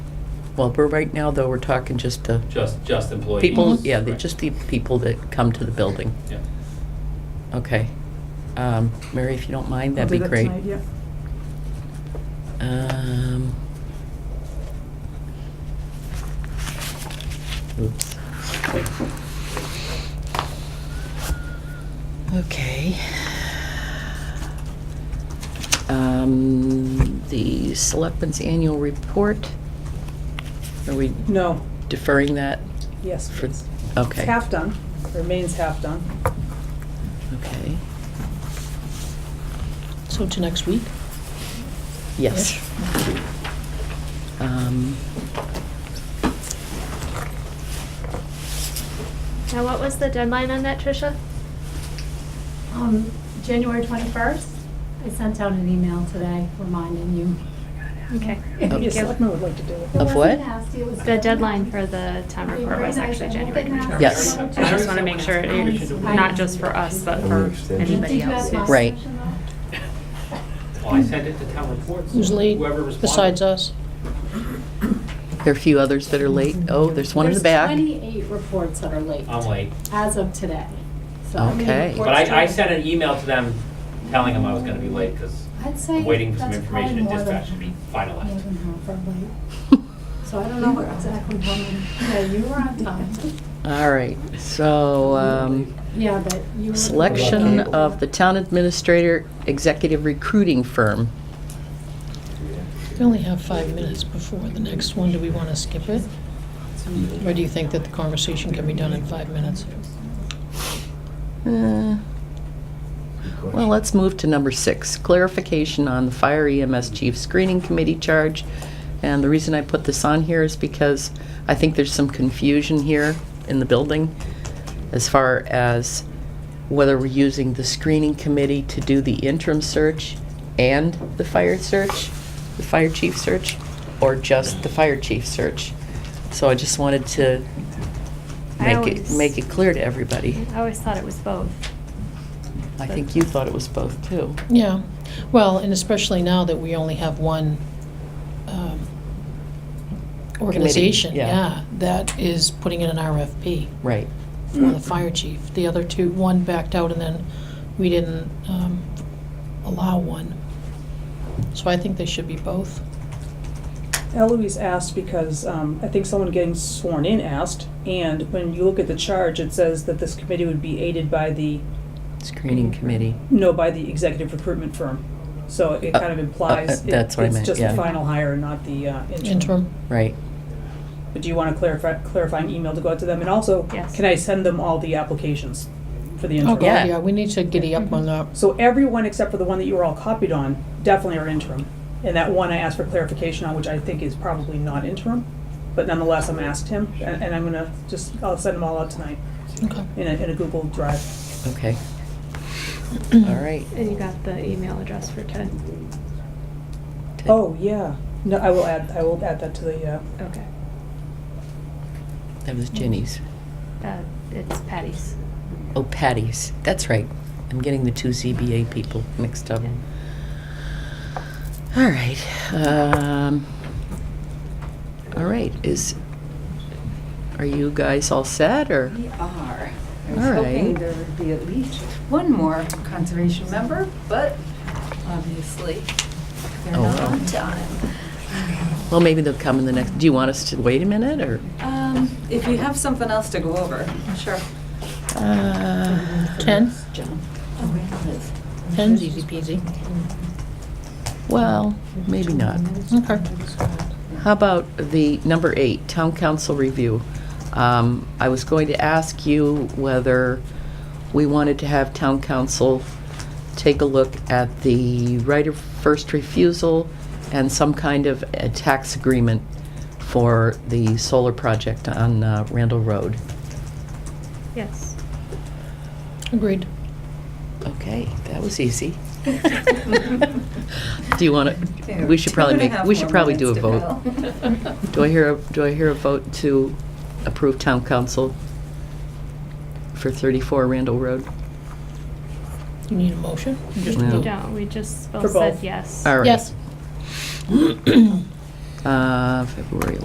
Well, but right now, though, we're talking just the Just, just employees. people, yeah, the- Right. just the people that come to the building. Yeah. Okay. Um, Mary, if you don't mind, that'd be great. I'll do that tonight, Um. Oops. Okay. Um, the Selectmen's Annual Report, are we yeah. No, deferring that? yes, For- please. It's Okay, half done, remains half done. okay, So to next week? yes. Um, Now, what was the deadline on that, Tricia? Um, January 21st? I sent out an email today reminding you. Okay. Maybe a Okay. selectman would like to do it. Of It wasn't what? nasty, it was The deadline for the town report was actually January 21st. Yes. I I just want to make sure, it- not just for us, but for anybody else. Did you have who's- my Right. session though? Well, Oh, I sent it to town reports. Who's late Whoever responded. besides uh, us? there are a few others that are late. Oh, there's one in the back. There's 28 reports that are late, I'm late. as of today. So how many Okay. reports But do I, I you- sent an email to them telling them I was gonna be late, because I'd say I'm waiting for some that's information and probably more than dispatch to be more finalized. than half are late. So I don't know what exactly how many, yeah, you were on time. All right, so, um, Yeah, but you were. selection of the town administrator executive recruiting firm. We only have five minutes before the next one. Do we want to skip it? Or do you think that the conversation can be done in five minutes? Uh, Well, let's move to number six, clarification on the fire EMS chief screening committee charge. And the reason I put this on here is because I think there's some confusion here in the building as far as whether we're using the screening committee to do the interim search and the fire search, the fire chief search, or just the fire chief search. So I just wanted to I make it, always- make it clear to everybody. I always thought it was both. I think you thought it was both, too. Yeah, well, and especially now that we only have one um, organization. yeah. Yeah, that is putting in an RFP Right. for the fire chief. The other two, one backed out and then we didn't um, allow one. So I think they should be both. Eloise asked because um, I think someone getting sworn in asked, and when you look at the charge, it says that this committee would be aided by the, Screening committee. no, by the executive recruitment firm. So it kind of implies uh, that's what I it- meant, it's just yeah. the final hire, not the uh, interim. Interim, Right. But do you want a clarify- clarifying email to go out to them? And also, Yes. can I send them all the applications for the interim? okay, Yeah. yeah, we need to giddy up on that. So everyone except for the one that you were all copied on definitely are interim. And that one I asked for clarification on, which I think is probably not interim, but nonetheless, I'm asked him, and and I'm gonna just, I'll send them all out tonight Okay. in a, in a Google Drive. Okay. Mm-hmm. All right. And you got the email address for Ted? Oh, yeah, no, I will add, I will add that to the, uh, Okay. That was Jenny's. Uh, It's Patty's. Oh, Patty's. That's right. I'm getting the two ZBA people mixed up. Yeah. All right. Um, all right. Is are you guys all set or? We are. I All was hoping right. there would be at least one more conservation member, but obviously, they're Oh, not well. on time. Well, maybe they'll come in the next. Do you want us to wait a minute or? Um, If you have something else to go over, sure. Uh, Ten? Okay. Ten's easy peasy. well, maybe not. Okay. How about the number eight, town council review? Um, I was going to ask you whether we wanted to have town council take a look at the right of first refusal and some kind of a tax agreement for the solar project on uh, Randall Road. Yes. Agreed. Okay, that was easy. Do you want to, we should probably make, we should probably do a vote. Do I hear, a do I hear a vote to approve town council for 34 Randall Road? You need a motion? Just No. You vote. don't, we just For both both. said yes. All right. Yes. Uh, February